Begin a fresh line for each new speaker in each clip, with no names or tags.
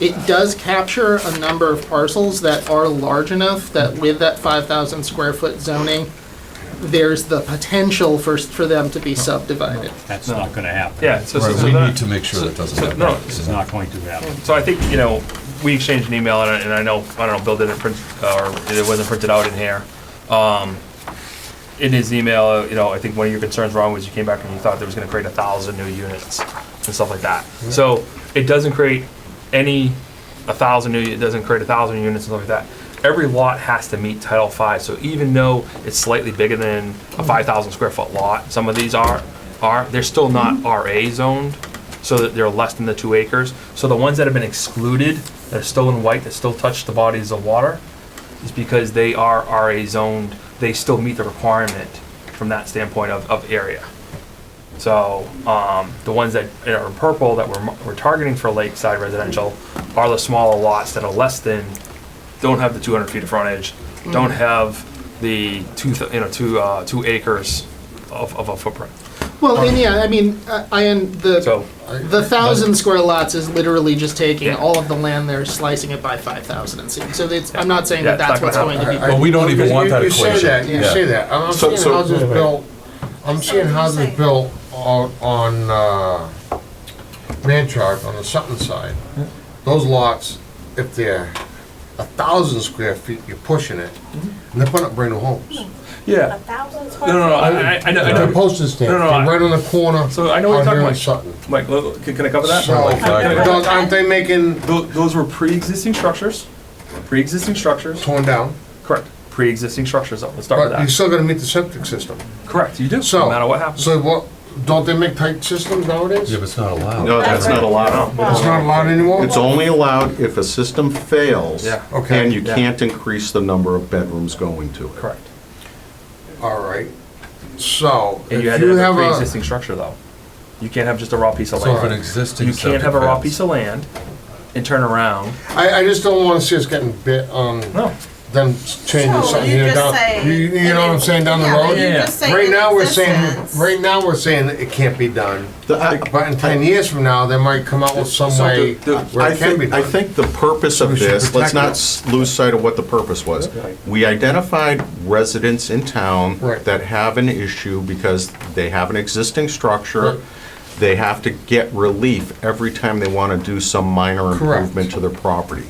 It does capture a number of parcels that are large enough that with that 5,000 square foot zoning, there's the potential for, for them to be subdivided.
That's not gonna happen.
Yeah, so, so,
Right,
so
we
that-
need to make sure that doesn't
so-
happen.
no,
It's not going to happen.
So I think, you know, we exchanged an email, and I- and I know, I don't know, Bill didn't print, uh, or it wasn't printed out in here. Um, In his email, uh, you know, I think one of your concerns, Ron, was you came back and you thought there was gonna create a thousand new units and stuff like that. So it doesn't create any, a thousand new, it doesn't create a thousand units and stuff like that. Every lot has to meet Title V, so even though it's slightly bigger than a five thousand square foot lot, some of these are, are, they're still not RA zoned so that they're less than the two acres. So the ones that have been excluded, that are still in white, that still touch the bodies of water, is because they are RA zoned, they still meet the requirement from that standpoint of, of area. So, um, the ones that are in purple that we're, we're targeting for lakeside residential are the smaller lots that are less than, don't have the two hundred feet of frontage, don't have the two, th- you know, two, uh, two acres of, of a footprint.
Well, and yeah, I mean, I, I am the,
So-
the thousand square lots is literally just taking
Yeah.
all of the land there, slicing it by 5,000 and seeing. So it's, I'm not saying
Yeah,
that that's
it's not
what's
gonna
going to be.
But we don't even want that
You say that,
equation.
you
Yeah.
say that, I'm
So-
seeing
so-
houses built, I'm seeing houses built on, on, uh, Manchart, on the Sutton side. Those lots, if they're a thousand square feet, you're pushing it,
Mm-hmm.
and they're putting up brand new homes.
Yeah.
A thousand square
No, no, no,
feet?
I, I- I know, I
They're
know.
postage stamps,
No, no, I-
they're right on the corner.
So I know what
out
you're
here
talking
in
about.
Sutton.
Mike, look, can can I cover that?
So,
Like-
those- aren't they making,
Tho- Those were pre-existing structures, pre-existing structures,
torn down,
correct, pre-existing structures, let's start
but you're
with
still gonna meet the septic system.
that. Correct, you do,
So-
no matter what happens.
So what, don't they make tight systems nowadays?
Yeah, but it's not allowed.
No, that's not allowed.
Wow.
It's not allowed anymore?
It's only allowed if a system fails.
Yeah.
Okay.
And you
Yeah.
can't increase the number of bedrooms going to it.
Correct.
All right, so
And
if
you had to
you
have a
have a,
pre-existing structure though. You can't have just a raw piece of
So if an
land.
existing.
You can't have a raw piece of land and turn around,
I, I just don't wanna see us getting bit on
no.
them changing
So
something
you
here
just
down,
say-
you, you know what I'm saying, down the
Yeah,
road?
you
Yeah.
just say
Right
in
now, we're saying,
existence.
right now, we're saying that it can't be done,
The- I-
but in ten years from now, they might come out with some
So
way
the- the-
where
I
it can be
think, I
done.
think the purpose
we
of
should
this, let's
protect
not
it.
s- lose sight of what the purpose was. We identified residents in town
Right.
that have an issue because they have an existing
Right.
structure. They have to get relief every time they want to do some minor
Correct.
improvement to their property.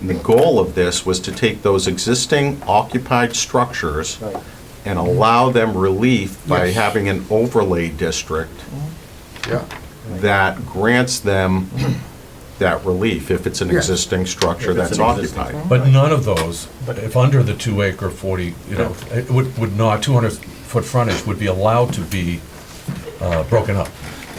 And the goal of this was to take those existing occupied structures and allow them relief by
Yes.
having an overlay district
Yeah,
that grants them that relief if it's an
Yes.
existing structure
If it's
that's
an existing
occupied.
But none of those, if under the two acre forty, you know, it would, would not, two hundred foot frontage would be allowed to be, uh, broken up,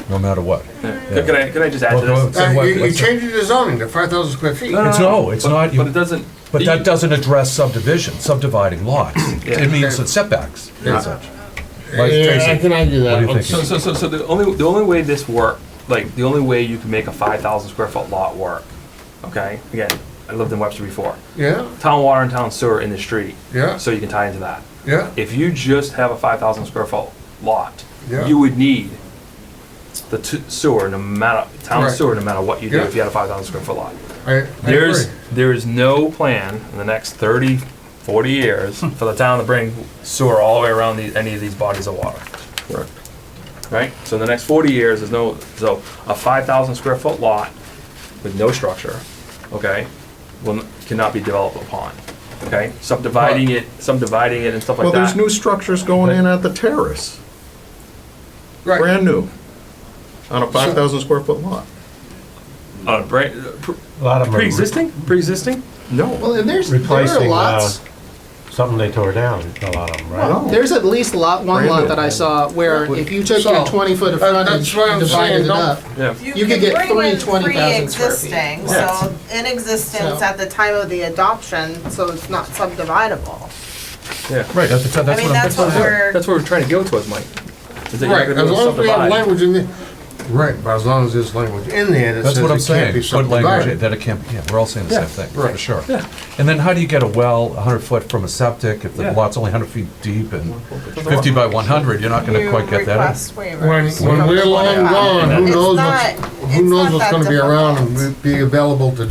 no matter what.
Can can I, can I just add to
Well,
this?
well,
Uh,
what-
you, you
what's that?
changing the zoning to five thousand square feet.
It's, no, it's not,
But it
you-
doesn't. e-
but that doesn't address subdivision, subdividing lots. It means it's setbacks and such. Like,
Yeah, I
Tracy,
can argue
What do you
that.
think?
So, so, so, so the only, the only way this work, like, the only way you can make a five thousand square foot lot work, okay? Again, I lived in Webster before.
Yeah,
Town water and town sewer in the street.
Yeah.
So you can tie into that.
yeah,
If you just have a five thousand square foot lot,
Yeah.
you would need the t- sewer, no matter, town
Right.
sewer, no matter what you do,
Yeah.
if you had a five thousand square foot lot.
I, I agree.
There's, there is no plan in the next 30, 40 years
Hmm.
for the town to bring sewer all the way around these, any of these bodies of water.
Correct.
Right? So in the next 40 years, there's no, so a 5,000 square foot lot with no structure, okay, will, n- cannot be developed upon, okay? Subdividing it, subdividing it and stuff
Well,
like
there's
that.
new structures going in at the terrace,
Right.
brand new, on a 5,000 square foot lot.
Uh, bra- pre-
A lot of them are
Pre-existing, pre-existing?
Well,
No,
and there's, there are
replacing, uh,
lots,
something they tore down, a lot of them, right?
no.
there's at least lot, one
Brand
lot
new.
that I saw where if you took
So,
your 20 foot of
that-
frontage
that's what
and
I'm
divided
saying,
it
don't-
up,
Yeah.
You could
can
get
bring
three
in
20,000 square feet.
pre-existing,
Yes.
So in existence
So-
at the time of the adoption, so it's not subdividable.
Right, that's, that's
I
what I'm.
mean, that's what we're,
That's where we're trying to go towards, Mike. Is that you're
Right,
gonna
as long as we have
subdivide.
language in there, right, but as long as there's language in there that
That's
says
what I'm
it can't be
saying, good language,
subdivided.
that it can't, be- yeah, we're all saying the
Yeah,
same thing, for
right.
sure.
Yeah.
And then how do you get a well hundred foot from a septic if the
Yeah.
lot's only hundred feet deep and fifty by one hundred, you're not gonna
you
quite get that in?
request
When,
waivers.
when we're long
Wow.
gone, who
It's
knows
not-
what's,
it's
who knows
not
what's
that
gonna be around
difficult.
and be available to